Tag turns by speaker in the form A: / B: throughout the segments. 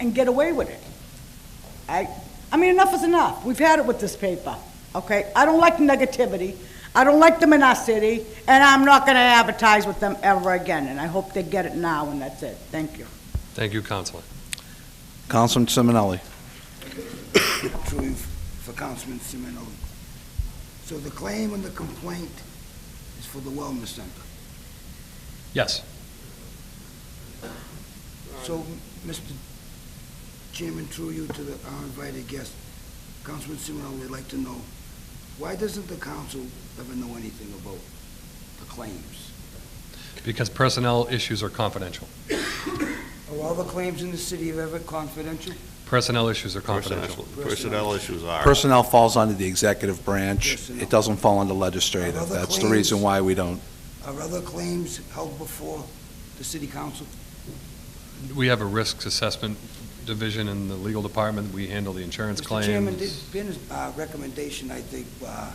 A: and get away with it. I, I mean, enough is enough. We've had it with this paper, okay? I don't like negativity. I don't like them in our city, and I'm not gonna advertise with them ever again, and I hope they get it now, and that's it. Thank you.
B: Thank you, Counselor.
C: Councilman Simonelli.
D: Truly for Councilman Simonelli. So the claim and the complaint is for the Wellness Center.
B: Yes.
D: So, Mr. Chairman, through you to the, our invited guest, Councilman Simonelli would like to know, why doesn't the council ever know anything about the claims?
B: Because personnel issues are confidential.
D: Are all the claims in the city of Everett confidential?
B: Personnel issues are confidential.
E: Personnel personnel issues are.
C: Personnel falls under the executive branch.
D: Personnel.
C: It doesn't fall under legislative.
D: Other
C: That's the
D: claims.
C: reason why we don't.
D: Are other claims held before the city council?
B: We have a risks assessment division in the legal department. We handle the insurance
D: Mr. Chairman,
B: claims.
D: there's been a uh, recommendation, I think, uh,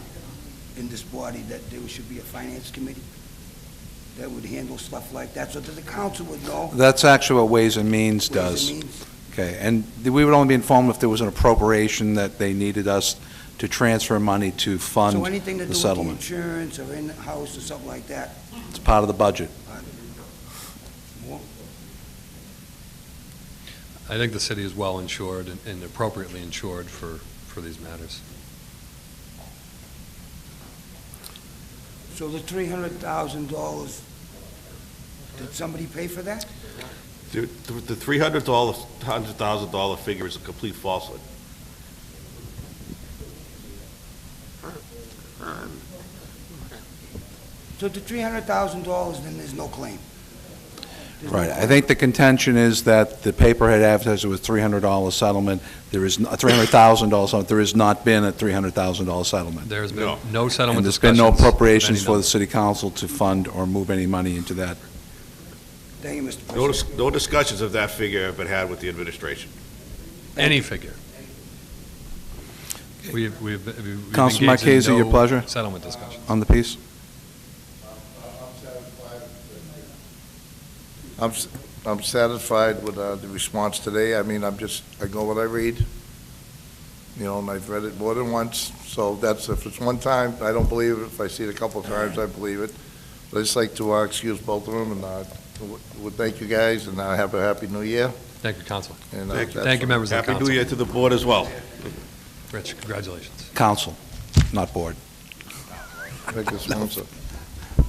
D: in this body that there should be a finance committee that would handle stuff like that, so that the council would know. what
C: That's actually what Ways and Means
D: it
C: does.
D: means.
C: Okay, and th- we would only be informed if there was an appropriation that they needed us to transfer money to
D: So
C: fund.
D: anything to do
C: the
D: with the
C: settlement.
D: insurance or in-house or something like that.
C: It's part of the budget.
D: More?
B: I think the city is well insured and- and appropriately insured for, for these matters.
D: So the three hundred thousand dollars, did somebody pay for that?
E: The the $300, $100,000 figure is a complete falsehood.
D: So the three hundred thousand dollars, then there's no claim? There's no
C: Right, I
D: claim.
C: think the contention is that the paper had advertised it was $300 settlement. There is, n- $300,000 settlement, there has not been a $300,000 settlement.
B: There has been
E: No.
B: no settlement
C: And there's been
B: discussions.
C: no
B: of any
C: appropriations for
B: number.
C: the city council to fund or move any money into that.
D: Thank you, Mr.
E: No
D: President.
E: dis- no discussions of that figure have been had with the administration.
B: Any figure. We've, we've. we've engaged
C: Councilman
B: in
C: Marchese, your
B: no
C: pleasure.
B: Settlement discussions.
C: On the piece?
F: I'm, s- I'm satisfied with uh, the response today. I mean, I'm just, I go what I read, you know, and I've read it more than once, so that's, if it's one time, I don't believe it. If I see it a couple of times, I believe it. But I'd just like to uh, excuse both of them, and uh, w- would thank you guys, and uh, have a happy new year.
B: Thank you, Counselor.
F: and, uh,
E: Thank you.
F: that's-
B: Thank you, members of the
E: Happy
B: council.
E: New Year to the board as well.
B: Rich, congratulations.
C: Council, not board.
F: Thank you, sponsor.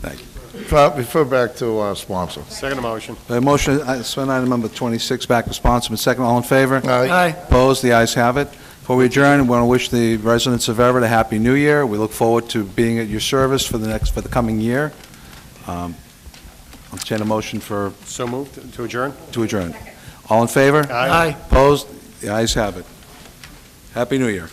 C: Thank
F: Refer- Refer back to uh, sponsor.
G: Second motion.
C: A motion, uh, spend item number 26, back to sponsor, and second, all in favor?
F: Aye. Aye.
C: Opposed, the ayes have it. Before we adjourn, we want to wish the residents of Everett a happy new year. We look forward to being at your service for the next, for the coming year. Um, I'll entertain a motion for,
G: So moved to adjourn?
C: to adjourn. All in favor?
G: Aye.
C: Opposed, the ayes have it. Happy New Year.